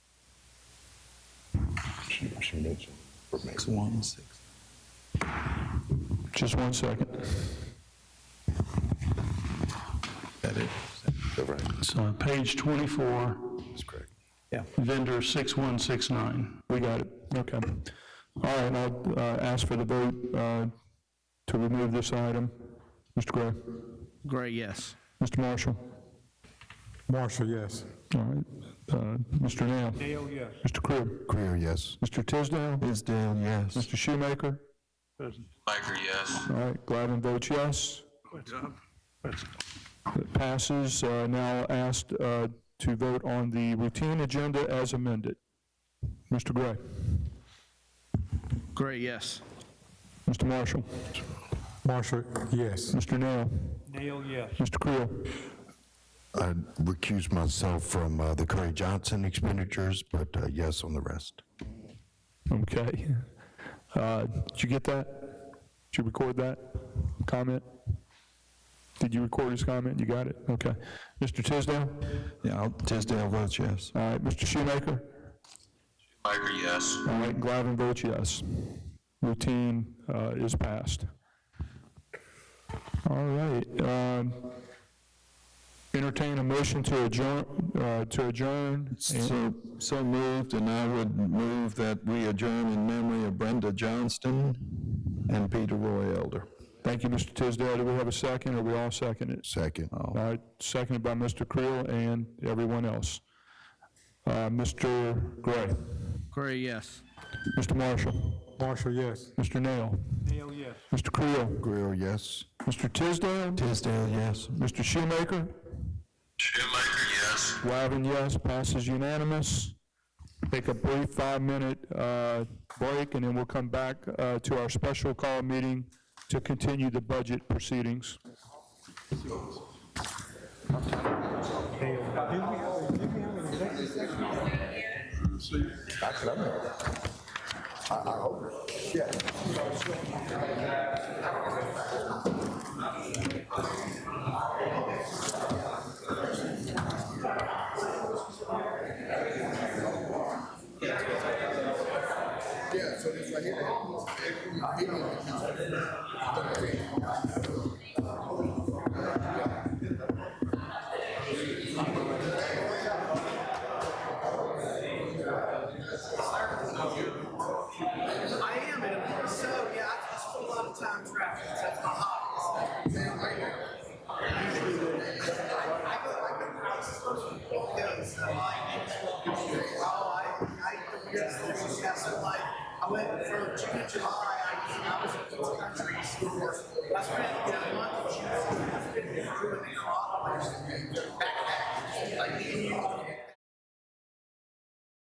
information that's for me. Just one second. That is, Is that right? It's uh, page 24, That's correct. yeah. vendor 6169. We got it, okay. All right, I'll uh, ask for the vote uh, to remove this item. Mr. Gray? Gray, yes. Mr. Marshall? Marshall, yes. All right, uh, Mr. Now? Dale, yes. Mr. Crib? Greer, yes. Mr. Tisdale? Tisdale, yes. Mr. Shoemaker? Biker, yes. All right, Glavin votes yes. It passes. Uh, Now asked uh, to vote on the routine agenda as amended. Mr. Gray? Gray, yes. Mr. Marshall? Marshall, yes. Mr. Now? Dale, yes. Mr. Creel? I recuse myself from uh, the Curry Johnson expenditures, but uh, yes on the rest. Okay. Uh, Did you get that? Did you record that comment? Did you record his comment? You got it? Okay. Mr. Tisdale? Yeah, I'll- Tisdale votes yes. All right, Mr. Shoemaker? Biker, yes. All right, Glavin votes yes. Routine uh, is passed. All right. um, Entertain a motion to adjourn, uh, to adjourn. So, so moved, and I would move that we adjourn in memory of Brenda Johnston and Peter Roy Elder. Thank you, Mr. Tisdale. Do we have a second? Are we all second it? Second. Uh, All right, seconded by Mr. Creel and everyone else. Uh, Mr. Gray, Gray, yes. Mr. Marshall, Marshall, yes. Mr. Nail, Dale, yes. Mr. Creel, Greer, yes. Mr. Tisdale, Tisdale, yes. Mr. Shoemaker, Shoemaker, yes. Wyven, yes, passes unanimous. Take a brief five-minute uh, break, and then we'll come back uh, to our special call meeting to continue the budget proceedings. I am, and I'm so, yeah, I, I spend a lot of time traveling, so that's my hobby. so. I go, I go, I was supposed to go, so I, oh, I, I, yes, yeah, so like, I went from June to July, I, I was in those countries, I spent, you know, a month in June, I spent doing a lot of places, backpacking, like, me and you,